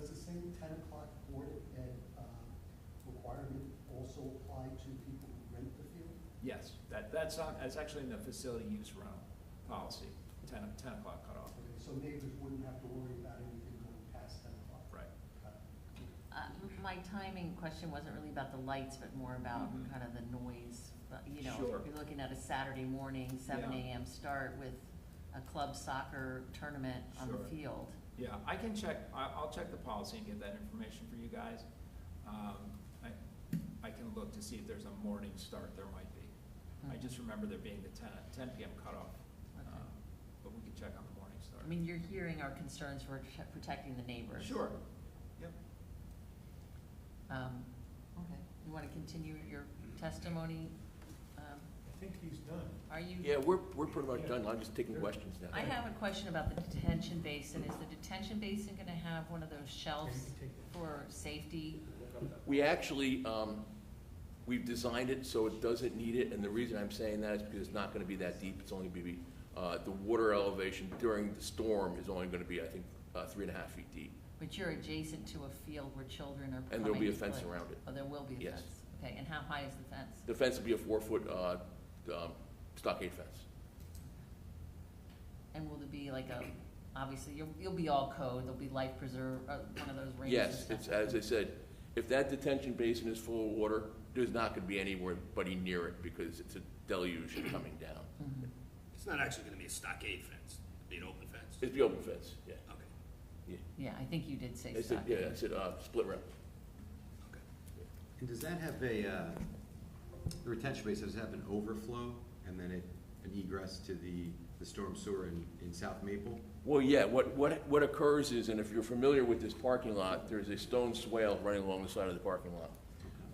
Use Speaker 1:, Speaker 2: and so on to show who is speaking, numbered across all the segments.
Speaker 1: same ten o'clock board of ed, uh, requirement also apply to people who rent the field?
Speaker 2: Yes, that, that's not, that's actually in the facility use realm policy, 10 o- 10 o'clock cutoff,
Speaker 1: Okay, so neighbors wouldn't have to worry about anything going past ten o'clock?
Speaker 2: right?
Speaker 1: Got it.
Speaker 3: Uh, My timing question wasn't really about the lights, but more about
Speaker 2: Mhm.
Speaker 3: kind of the noise. But, You know,
Speaker 2: Sure.
Speaker 3: if you're looking at a Saturday morning, seven
Speaker 2: Yeah.
Speaker 3: AM start with a club soccer tournament on the
Speaker 2: Sure.
Speaker 3: field.
Speaker 2: Yeah, I can check, I, I'll check the policy and get that information for you guys. Um, I, I can look to see if there's a morning start, there might be. I
Speaker 3: Mhm.
Speaker 2: just remember there being the 10 10 PM cutoff.
Speaker 3: Okay.
Speaker 2: um, But we can check on the morning start.
Speaker 3: I mean, you're hearing our concerns for t- protecting the neighbors.
Speaker 2: Sure, yep.
Speaker 3: Um, Okay, you want to continue your testimony? Um,
Speaker 4: I think he's done.
Speaker 3: Are you?
Speaker 5: Yeah, we're, we're pretty much done, I'm just taking questions now.
Speaker 3: I have a question about the detention basin. Is the detention basin going to have one of those shelves
Speaker 4: Take that.
Speaker 3: for safety?
Speaker 5: We actually, um, we've designed it so it doesn't need it, and the reason I'm saying that is because it's not gonna be that deep, it's only gonna be, uh, the water elevation during the storm is only gonna be, I think, uh, three and a half feet deep,
Speaker 3: But you're adjacent to a field where children are coming.
Speaker 5: and there'll be a
Speaker 3: to
Speaker 5: fence
Speaker 3: play.
Speaker 5: around it.
Speaker 3: Oh, there will be a
Speaker 5: Yes.
Speaker 3: fence? Okay, and how high is the fence?
Speaker 5: The fence will be a four-foot, uh, um, stockade fence.
Speaker 3: And will there be like a, obviously, you'll, you'll be all code, there'll be life preserve, uh, one of those rings? and
Speaker 5: Yes,
Speaker 3: stuff.
Speaker 5: it's, as I said, if that detention basin is full of water, there's not gonna be anybody near it, because it's a deluge coming down.
Speaker 3: Mhm.
Speaker 6: It's not actually gonna be a stockade fence, it'd be an open fence.
Speaker 5: It's the open fence, yeah.
Speaker 6: Okay,
Speaker 3: Yeah, I think you did say
Speaker 5: I said,
Speaker 3: stuff.
Speaker 5: yeah, I said, uh, split rail.
Speaker 6: okay.
Speaker 7: And does that have a, uh, the retention base, does it have an overflow and then it, an egress to the, the storm sewer in, in South Maple?
Speaker 5: Well, yeah, what, what, what occurs is, and if you're familiar with this parking lot, there's a stone swale running along the side of the parking lot.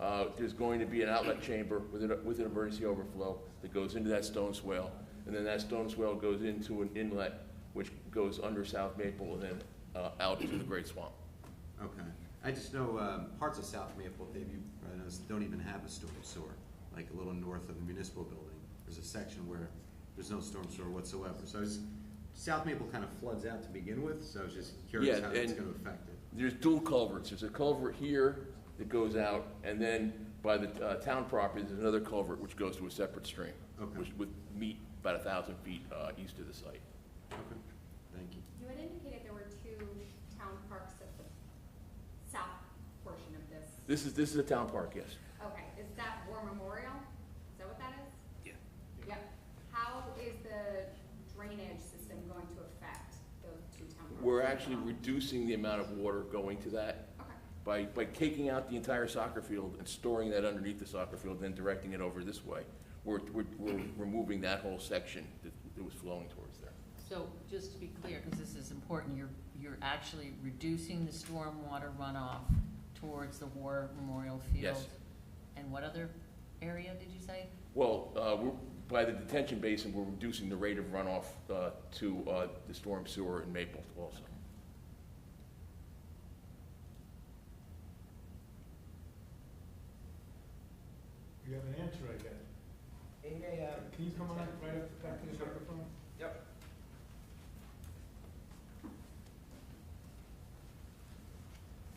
Speaker 5: Uh, there's going to be an outlet chamber with an, with an emergency overflow that goes into that stone swale. And then that stone swale goes into an inlet, which goes under South Maple and then, uh, out into the Great Swamp.
Speaker 7: Okay. I just know, um, parts of South Maple, Dave, you probably know, don't even have a storm sewer. Like a little north of the municipal building, there's a section where there's no storm sewer whatsoever. So it's, South Maple kind of floods out to begin with, so I was just curious
Speaker 5: Yeah,
Speaker 7: how that's
Speaker 5: and-
Speaker 7: gonna affect it.
Speaker 5: There's dual culverts, there's a culvert here that goes out, and then by the, uh, town property, there's another culvert which goes to a separate stream.
Speaker 7: Okay.
Speaker 5: Which would meet about a thousand feet, uh, east of the site.
Speaker 7: Okay, thank you.
Speaker 8: You had indicated there were two town parks at the south portion of this.
Speaker 5: This is, this is a town park, yes.
Speaker 8: Okay, is that War Memorial? Is that what that is?
Speaker 6: Yeah.
Speaker 8: Yep. How is the drainage system going to affect those two town parks?
Speaker 5: We're actually reducing the amount of water going to that
Speaker 8: Okay,
Speaker 5: by, by taking out the entire soccer field and storing that underneath the soccer field, then directing it over this way. We're, we're, we're removing that whole section that, that was flowing towards there.
Speaker 3: So just to be clear, because this is important, you're, you're actually reducing the stormwater runoff towards the War Memorial Field?
Speaker 5: Yes.
Speaker 3: And what other area did you say?
Speaker 5: Well, uh, we're, by the detention basin, we're reducing the rate of runoff, uh, to, uh, the storm sewer in Maple also.
Speaker 4: You have an answer, I guess.
Speaker 1: Eight AM.
Speaker 4: Can you come on up right up back to the microphone?
Speaker 2: Yep.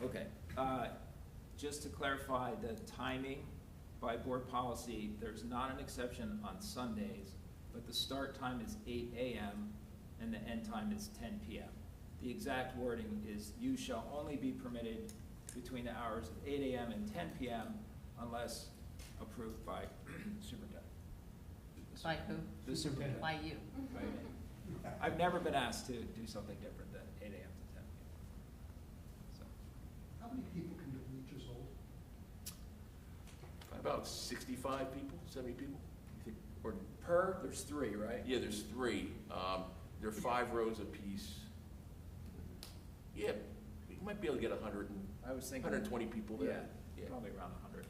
Speaker 2: Okay, uh, just to clarify the timing, by board policy, there's not an exception on Sundays, but the start time is eight AM and the end time is ten PM. The exact wording is, "You shall only be permitted between the hours of eight AM and ten PM unless approved by superintendent."
Speaker 3: By who?
Speaker 2: The superintendent.
Speaker 3: By you?
Speaker 2: Right. I've never been asked to do something different than eight AM to ten PM.
Speaker 1: How many people can the bleachers hold?
Speaker 5: About sixty-five people, seventy people? You think- Or
Speaker 2: So Per, there's three, right?
Speaker 5: Yeah, there's three. Um, There are five rows apiece. Yeah, you might be able to get 100, and-
Speaker 2: I was thinking.
Speaker 5: 120 people there.
Speaker 2: Yeah, probably around a hundred.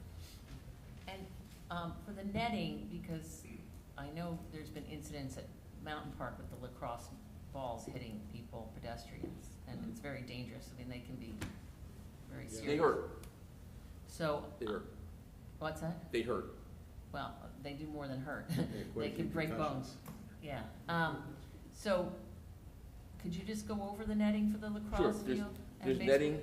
Speaker 3: And um, for the netting, because I know there's been incidents at Mountain Park with the lacrosse balls hitting people, pedestrians, and it's very dangerous. I mean, they can be very
Speaker 4: Yeah.
Speaker 3: serious.
Speaker 5: They hurt,
Speaker 3: So,
Speaker 5: they hurt,
Speaker 3: what's that?
Speaker 5: they hurt.
Speaker 3: Well, they do more than hurt.
Speaker 7: quite
Speaker 3: They
Speaker 7: a
Speaker 3: can
Speaker 7: few
Speaker 3: break bones.
Speaker 7: concussions.
Speaker 3: Yeah. Um, So, could you just go over the netting for the
Speaker 5: Sure,
Speaker 3: lacrosse
Speaker 5: there's-
Speaker 3: field? and
Speaker 5: There's
Speaker 3: baseball?
Speaker 5: netting,